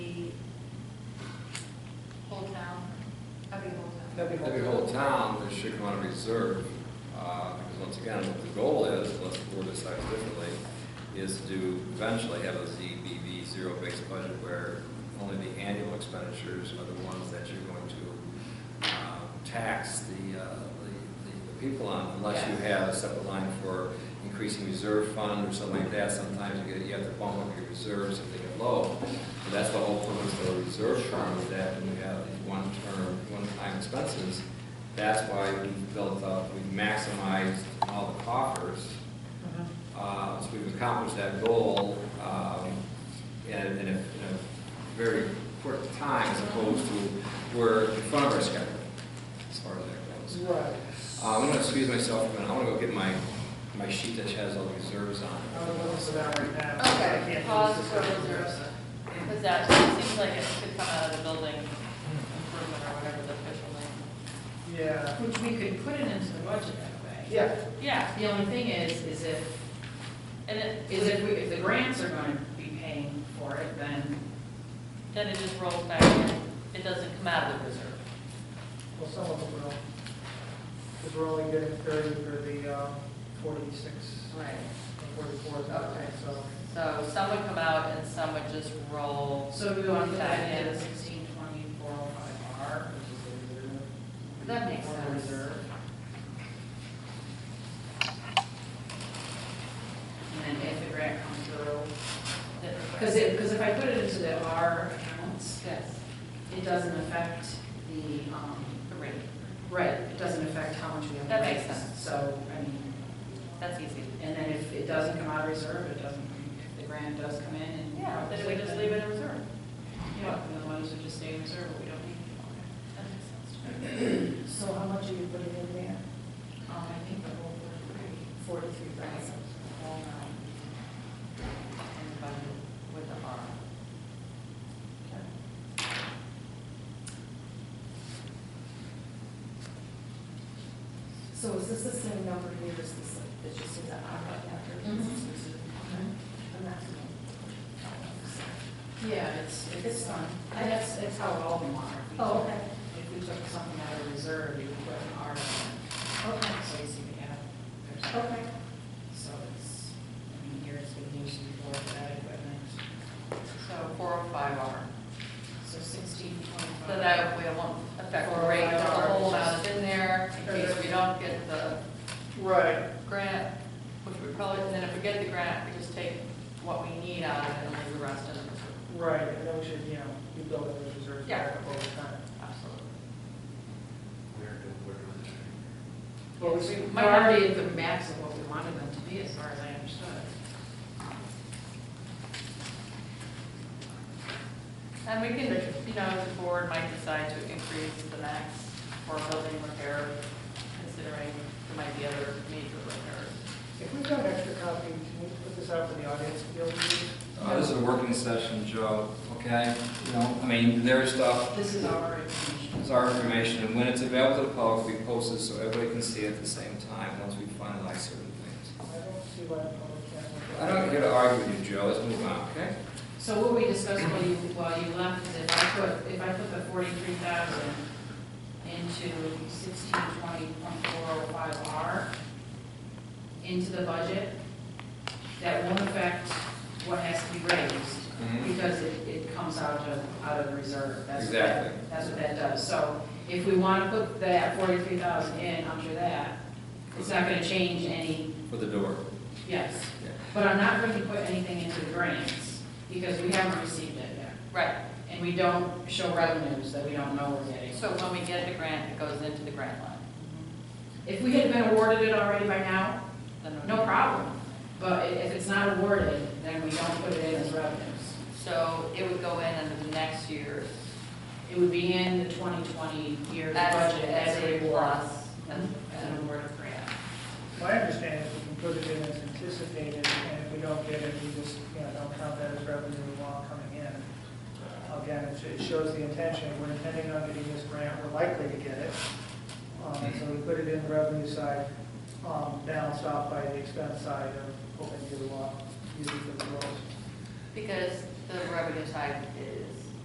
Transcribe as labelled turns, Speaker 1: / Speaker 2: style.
Speaker 1: That'd be
Speaker 2: every whole town that should come out of reserve, uh, because once again, what the goal is, unless the board decides differently, is to eventually have a ZBB zero-based budget where only the annual expenditures are the ones that you're going to uh, tax the, uh, the, the people on, unless you
Speaker 1: Yeah.
Speaker 2: have a separate line for increasing reserve fund or something like that. Sometimes you get, you have to bump up your reserves if they get low. But that's the whole purpose of the reserve fund, is that when you have these one-term, one-time expenses, that's why we've built up, we've maximized all the coffers. Uh, So we've accomplished that goal um, in in a in a very quick time as opposed to we're in front of our schedule, as far as that goes.
Speaker 1: Right.
Speaker 2: Uh, I'm gonna excuse myself for a minute, I wanna go get my, my sheet that has all the reserves on it.
Speaker 1: I would look this about right now. but I can't do
Speaker 3: Okay,
Speaker 1: this
Speaker 3: pause for
Speaker 1: discussion.
Speaker 3: reserves, because that seems like it could come out of the building improvement or whatever the official name.
Speaker 1: Yeah,
Speaker 4: Which we could put it into the budget that way.
Speaker 1: yeah,
Speaker 3: Yeah,
Speaker 4: The only thing is, is if,
Speaker 3: and it,
Speaker 4: is if we, if the grants are gonna be paying for it, then,
Speaker 3: then it just rolls back in, it doesn't come out of the reserve.
Speaker 1: well, some of them will. Because we're only getting thirty for the um, forty-six,
Speaker 3: Right.
Speaker 1: forty-four,
Speaker 3: Okay.
Speaker 1: so.
Speaker 3: So some would come out and some would just roll.
Speaker 4: so we want to put
Speaker 3: back
Speaker 4: that
Speaker 3: in.
Speaker 4: in sixteen twenty-four oh five R, which is the reserve.
Speaker 3: That makes
Speaker 4: or the
Speaker 3: sense.
Speaker 4: Reserve. And then if the grant comes through, because it, because if I put it into the R accounts,
Speaker 3: Yes.
Speaker 4: it doesn't affect the, um,
Speaker 3: The rate.
Speaker 4: right, it doesn't affect how much we have. to
Speaker 3: That makes
Speaker 4: raise.
Speaker 3: sense.
Speaker 4: So, I mean,
Speaker 3: That's easy.
Speaker 4: and then if it doesn't come out of reserve, it doesn't, if the grant does come in and.
Speaker 3: Yeah, then we just leave it in reserve.
Speaker 4: Yeah, then the ones would just stay in reserve, but we don't need it.
Speaker 3: That makes sense.
Speaker 5: So how much are you putting in there?
Speaker 4: Um, I think the whole
Speaker 5: Forty-three thousand.
Speaker 3: Whole nine. And the budget with the R.
Speaker 5: So is this the same number here as this, it's just in the outright after?
Speaker 3: Mm-hmm.
Speaker 5: And that's-
Speaker 4: Yeah, it's, it's
Speaker 5: It's
Speaker 4: fine.
Speaker 5: fine.
Speaker 4: And that's, that's how all of them are. If we
Speaker 5: Oh,
Speaker 4: took-
Speaker 5: okay.
Speaker 4: If we took something out of reserve, you would put an R in it,
Speaker 5: Okay,
Speaker 4: so you see we have, there's.
Speaker 5: okay.
Speaker 4: So it's, I mean, here it's been used before for that equipment.
Speaker 3: So four oh five R.
Speaker 4: So sixteen twenty-five.
Speaker 3: So that we won't affect the rate, the whole amount oh is in there in case we don't get the
Speaker 1: Right,
Speaker 3: grant, which we probably, and then if we get the grant, we just take what we need out of it and leave the rest in the reserve.
Speaker 1: right, and then we should, you know, be building those reserves back up over time.
Speaker 3: Absolutely.
Speaker 6: Where do, where do we?
Speaker 1: Well, we
Speaker 4: Yes,
Speaker 1: see-
Speaker 4: we Might already at the max of what we wanted them to be, as far as I understood.
Speaker 3: And we can, you know, the board might decide to increase the max for building repair, considering there might be other major repairs.
Speaker 1: If we've got an extra copy, can we put this out for the audience to be able to use?
Speaker 2: Uh, This is a working session, Joe, okay? You know, I mean, there's stuff,
Speaker 4: This is our information.
Speaker 2: it's our information, and when it's available to the public, we post it so everybody can see it at the same time, once we finalize certain
Speaker 1: I
Speaker 2: things.
Speaker 1: don't see why the public can't. look at
Speaker 2: I
Speaker 1: it.
Speaker 2: don't get to argue with you, Joe, let's move on, okay?
Speaker 4: So what we discussed while you, while you left is if I put, if I put the forty-three thousand into sixteen twenty point four oh five R into the budget, that won't affect what has to be raised.
Speaker 2: Mhm.
Speaker 4: because it, it comes out of, out of reserve. That's what that-
Speaker 2: Exactly.
Speaker 4: That's what that does. So if we want to put that forty-three thousand in under that, it's not going to change any,
Speaker 2: For the door.
Speaker 4: yes.
Speaker 2: Yeah.
Speaker 4: But I'm not going to put anything into the grants, because we haven't received it yet.
Speaker 3: Right,
Speaker 4: And we don't show revenues that we don't know we're getting.
Speaker 3: so when we get the grant, it goes into the grant line.
Speaker 4: If we had been awarded it already by now,
Speaker 3: Then we-
Speaker 4: no problem. But i- if it's not awarded, then we don't put it in as revenues.
Speaker 3: So it would go in under the next year's
Speaker 4: It would be in the twenty twenty year's
Speaker 3: as,
Speaker 4: budget
Speaker 3: as a
Speaker 4: award.
Speaker 3: plus.
Speaker 4: as an award of grant.
Speaker 1: My understanding is we can put it in as anticipated, and if we don't get it, we just, you know, don't count that as revenue while coming in. Again, it sh- it shows the intention, we're intending on getting this grant, we're likely to get it. Um, So we put it in the revenue side, um, balanced off by the expense side of hoping to uh, use it for the roles.
Speaker 3: Because the revenue side is